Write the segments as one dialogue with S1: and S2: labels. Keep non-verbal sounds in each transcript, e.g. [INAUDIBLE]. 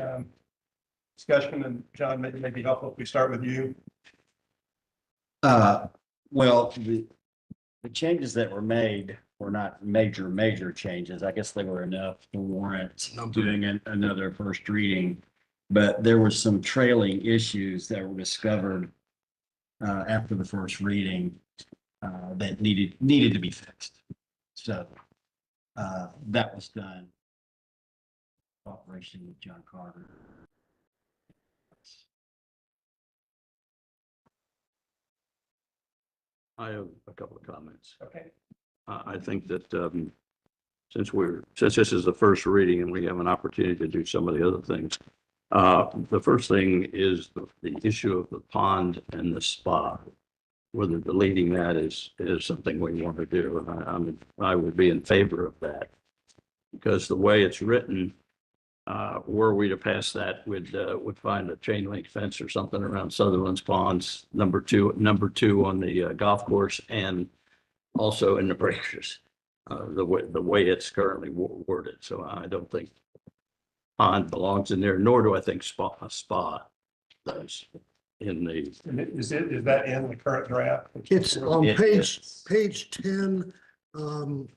S1: um, discussion, and John, may may be helpful if we start with you.
S2: Uh, well, the, the changes that were made were not major, major changes. I guess they were enough to warrant doing an- another first reading. But there were some trailing issues that were discovered uh, after the first reading uh, that needed, needed to be fixed. So uh, that was done. in Cooperation with John Carter.
S3: I have a couple of comments.
S1: Okay.
S3: I, I think that, um, since we're, since this is the first reading and we have an opportunity to do some of the other things, uh, the first thing is the, the issue of the pond and the spa. Whether deleting that is, is something we want to do. And I, I'm, I would be in favor of that. Because the way it's written, uh, were we to pass that, would, uh, would find a chain link fence or something around Sutherland's Ponds, number two, number two on the uh, golf course and also in the breakers, uh, the way, the way it's currently wo- worded. So I don't think pond belongs in there, nor do I think spa, spa does in the,
S1: And i- Is it, is that in the current draft?
S4: It's on
S3: It
S4: page, page ten, um,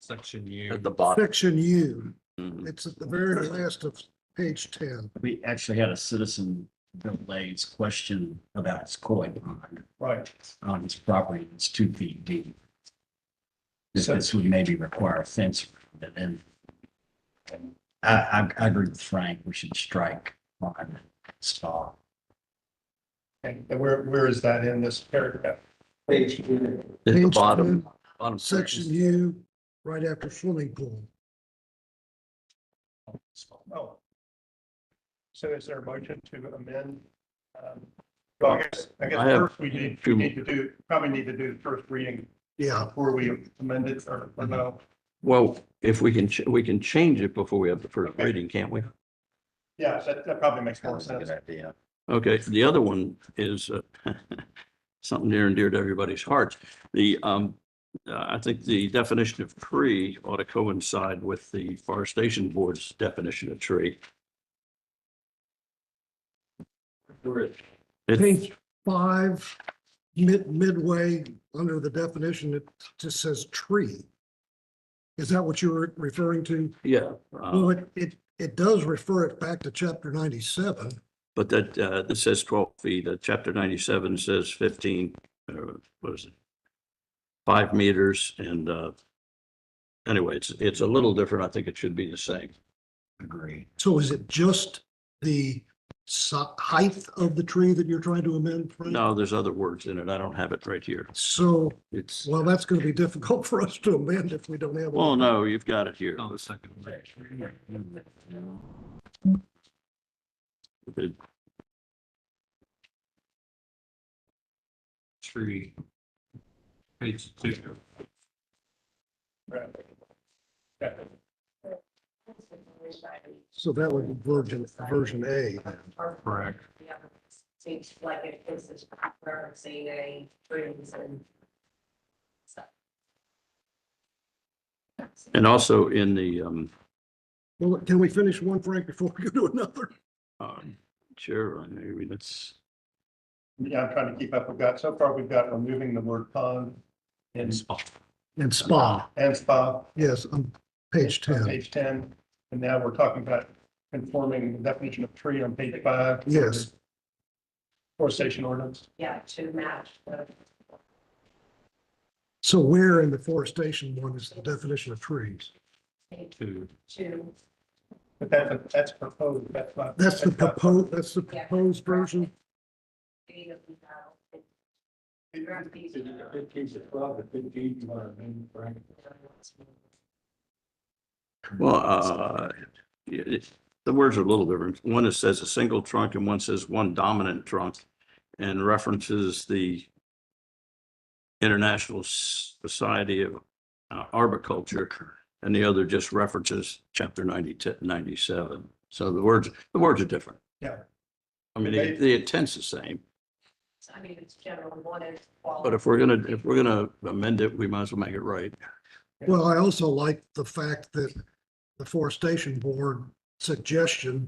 S5: Section U.
S3: at the bottom.
S4: section U.
S3: Mhm.
S4: It's at the very last of page ten.
S2: We actually had a citizen, Bill Blades, question about his koi pond.
S1: Right.
S2: on his property that's two feet deep. This- This would maybe require a fence, but then I, I, I agree with Frank, we should strike on spa.
S1: And and where, where is that in this paragraph?
S3: At the
S4: Page
S3: bottom,
S4: 10,
S3: bottom
S4: Section U, right after swimming pool.
S1: Oh. So is there a motion to amend? um, Well, I guess, I guess
S3: I have
S1: first we need, we
S3: two-
S1: need to do, probably need to do the first reading
S4: Yeah,
S1: before we amend it or, or no.
S3: Well, if we can, ch- we can change it before we have the first
S1: Okay.
S3: reading, can't we?
S1: Yeah, that, that probably makes more
S2: That's a
S1: sense.
S2: good idea.
S3: Okay, the other one is uh, [LAUGHS] something near and dear to everybody's hearts. The, um, uh, I think the definition of tree ought to coincide with the forestation board's definition of tree. It's,
S4: page five, mid, midway, under the definition, it just says tree. Is that what you were referring to?
S3: yeah, uh,
S4: Well, it, it, it does refer it back to chapter ninety-seven.
S3: but that, uh, this says twelve feet, uh, chapter ninety-seven says fifteen, uh, what is it? Five meters and, uh, anyway, it's, it's a little different. I think it should be the same.
S2: Agree.
S4: So is it just the si- height of the tree that you're trying to amend? Frank?
S3: No, there's other words in it. I don't have it right here.
S4: So,
S3: It's,
S4: well, that's going to be difficult [LAUGHS] for us to amend if we don't have. a-
S3: well, no, you've got it here.
S5: On the second page.
S3: It-
S5: Tree. Page two.
S1: Right.
S4: So that would be version, version A.
S5: Correct.
S6: Yeah, seems like it is this referencing a trees and stuff.
S3: And also in the, um,
S4: Well, can we finish one, Frank, before we go to another?
S3: uh, chair, I mean, that's,
S1: Yeah, I'm trying to keep up. We've got, so far we've got removing the word pond and,
S4: And spa,
S1: and spa.
S4: yes, on page
S1: on
S4: ten.
S1: Page ten, and now we're talking about conforming the definition of tree on page five.
S4: Yes.
S1: Forestation ordinance.
S6: Yeah, to match the,
S4: So where in the forestation one is the definition of trees?
S5: Two.
S6: to,
S1: But that's, that's proposed, that's not.
S4: That's the
S1: not-
S4: proposed, that's the proposed version?
S6: be that we have,
S3: well, uh, it- it- the words are a little different. One is says a single trunk and one says one dominant trunk and references the International Society of uh, Arboriculture and the other just references chapter 90 97. So the words, the words are different.
S1: Yeah.
S3: I mean, the the intent's the same.
S6: I mean, it's general, one is. quality.
S3: But if we're gonna, if we're gonna amend it, we might as well make it right.
S4: Well, I also like the fact that the forestation board suggestion